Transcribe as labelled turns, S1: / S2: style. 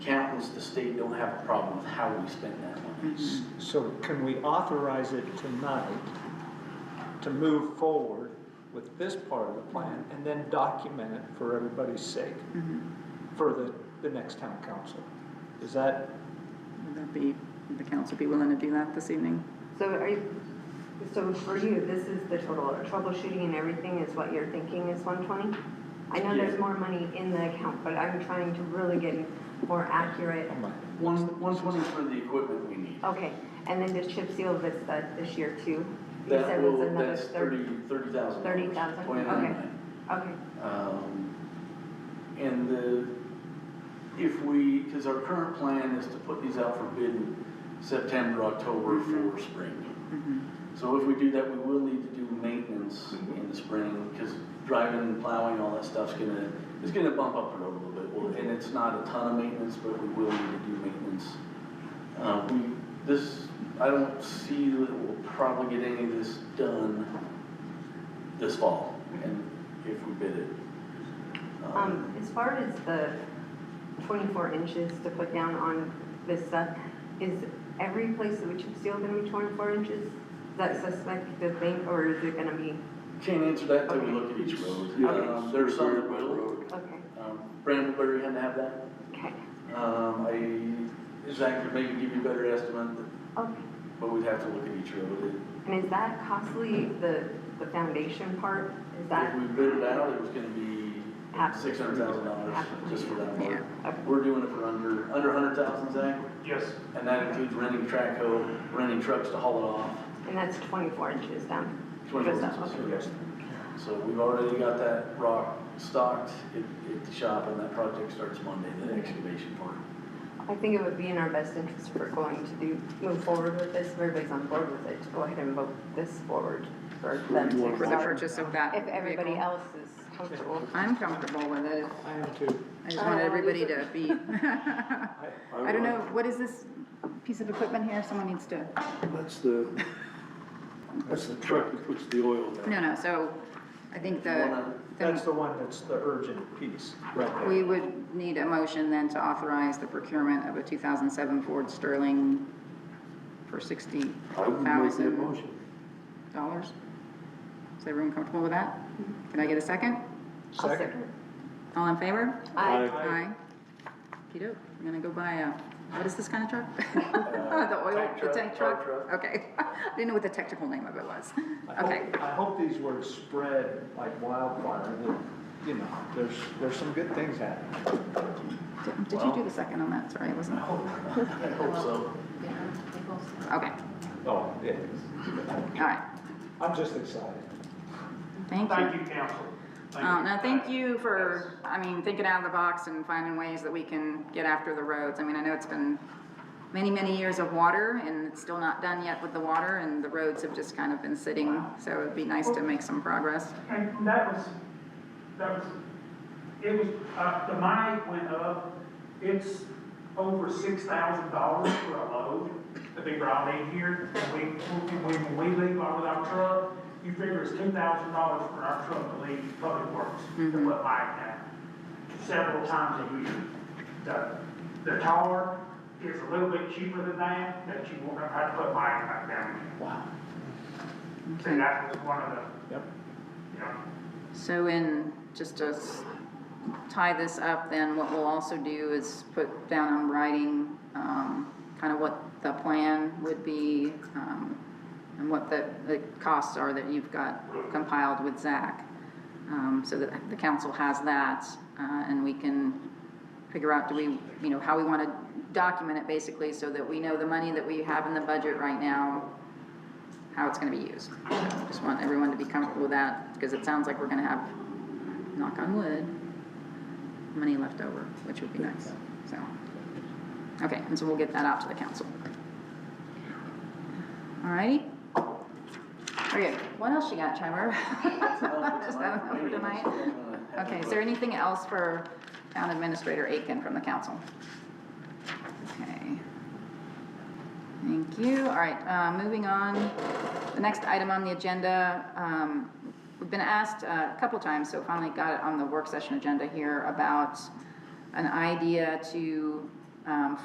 S1: state don't have a problem with how we spend that money.
S2: So can we authorize it tonight to move forward with this part of the plan and then document it for everybody's sake for the, the next town council? Is that,
S3: Would that be, would the council be willing to do that this evening?
S4: So are you, so for you, this is the total, troubleshooting and everything is what you're thinking is one twenty? I know
S1: Yeah.
S4: there's more money in the account, but I'm trying to really get more accurate.
S2: am I-
S1: One, one twenty for the equipment we need.
S4: Okay, and then the chip seal this, uh, this year too? You
S1: That
S4: said was
S1: will,
S4: another
S1: that's thirty, thirty thousand.
S4: Thirty thousand, okay, okay,
S1: Um, And the, if we, because our current plan is to put these out for bid in September, October
S4: Mm-hmm.
S1: for spring.
S5: Mm-hmm.
S1: So if we do that, we will need to do maintenance in the spring, because driving, plowing, all that stuff's gonna, it's gonna bump up the road a little bit. Well, And it's not a ton of maintenance, but we will need to do maintenance. Uh, we, this, I don't see that we'll probably get any of this done this fall, and if we bid it.
S4: um, as far as the twenty-four inches to put down on this stuff, is every place that we chip seal gonna be twenty-four inches? Is that suspect to think, or is it gonna be,
S1: Can't answer that until we look at each road. Um, There's some that will.
S4: okay,
S1: Um, Brandonberry had to have that.
S4: okay,
S1: Um, I, Zach could maybe give you a better estimate,
S4: okay.
S1: but we'd have to look at each road.
S4: And is that costly, the, the foundation part, is
S1: If
S4: that?
S1: we bid it out, it was gonna be
S4: Half.
S1: six hundred thousand dollars just for that work.
S4: Okay.
S1: We're doing it for under, under a hundred thousand, Zach,
S5: Yes.
S1: and that includes renting track hoe, renting trucks to haul it off.
S4: And that's twenty-four inches down?
S1: Twenty-four
S4: Just that,
S1: inches,
S4: okay.
S1: yes. So we've already got that rock stocked at, at the shop, and that project starts Monday, the excavation part.
S4: I think it would be in our best interest for going to do, move forward with this, if everybody's on board with it, to go ahead and vote this forward for them to
S3: For the
S4: start.
S3: purchase of that
S4: If everybody
S3: vehicle?
S4: else is comfortable.
S3: I'm comfortable with it.
S2: I am too.
S3: I just wanted
S4: Oh,
S3: everybody
S4: is
S3: to
S4: it-
S3: be. I don't know, what is this piece of equipment here? Someone needs to,
S5: That's the, that's the truck that puts the oil down.
S3: no, no, so I think the,
S2: That's
S3: the-
S2: the one that's the urgent piece.
S1: Right
S3: we would need a motion then to authorize the procurement of a 2007 Ford Sterling for
S5: I would make that
S3: $60,000.
S5: motion.
S3: Is everyone comfortable with that? Can I get a second?
S4: I'll second.
S3: All in favor?
S4: I,
S5: Aye.
S3: Hi. Peter, I'm gonna go buy a, what is this kind of truck? The oil,
S1: tank
S3: the
S1: truck,
S3: tank
S1: car
S3: truck? Okay. I didn't know what the technical name of it was.
S2: I
S3: Okay.
S2: hope- I hope these words spread like wildfire, that, you know, there's, there's some good things happening.
S3: Did- Did you do the second on that? Sorry, I wasn't.
S1: I hope so.
S3: Okay,
S2: Oh, yeah.
S3: all right.
S2: I'm just excited.
S3: Thank you.
S6: Thank you, council.
S3: Um, now, thank you for, I mean, thinking out of the box and finding ways that we can get after the roads. I mean, I know it's been many, many years of water and it's still not done yet with the water and the roads have just kind of been sitting. So it'd be nice to make some progress.
S6: And that was, that was, it was, uh, the mine went up, it's over six thousand dollars for a load that they brought in here. And we, when we, when we leave out with our truck, you figure it's two thousand dollars for our truck to leave public works, to what mine had, several times a year. The, the tar is a little bit cheaper than that, that you won't have to put mine back down.
S2: Wow.
S6: So that was one of the,
S2: Yep.
S6: you know,
S3: So in, just to s- tie this up, then what we'll also do is put down on writing, um, kind of what the plan would be, um, and what the, the costs are that you've got compiled with Zach. Um, so that the council has that, uh, and we can figure out, do we, you know, how we want to document it basically, so that we know the money that we have in the budget right now, how it's gonna be used. So, Just want everyone to be comfortable with that, because it sounds like we're gonna have, knock on wood, money left over, which would be nice, so. Okay, and so we'll get that out to the council. Alrighty. Okay, what else you got, Trevor? Just that one for tonight? Okay, is there anything else for Town Administrator Aiken from the council? Okay. Thank you. All right, uh, moving on. The next item on the agenda, um, we've been asked uh, a couple times, so finally got it on the work session agenda here about an idea to um,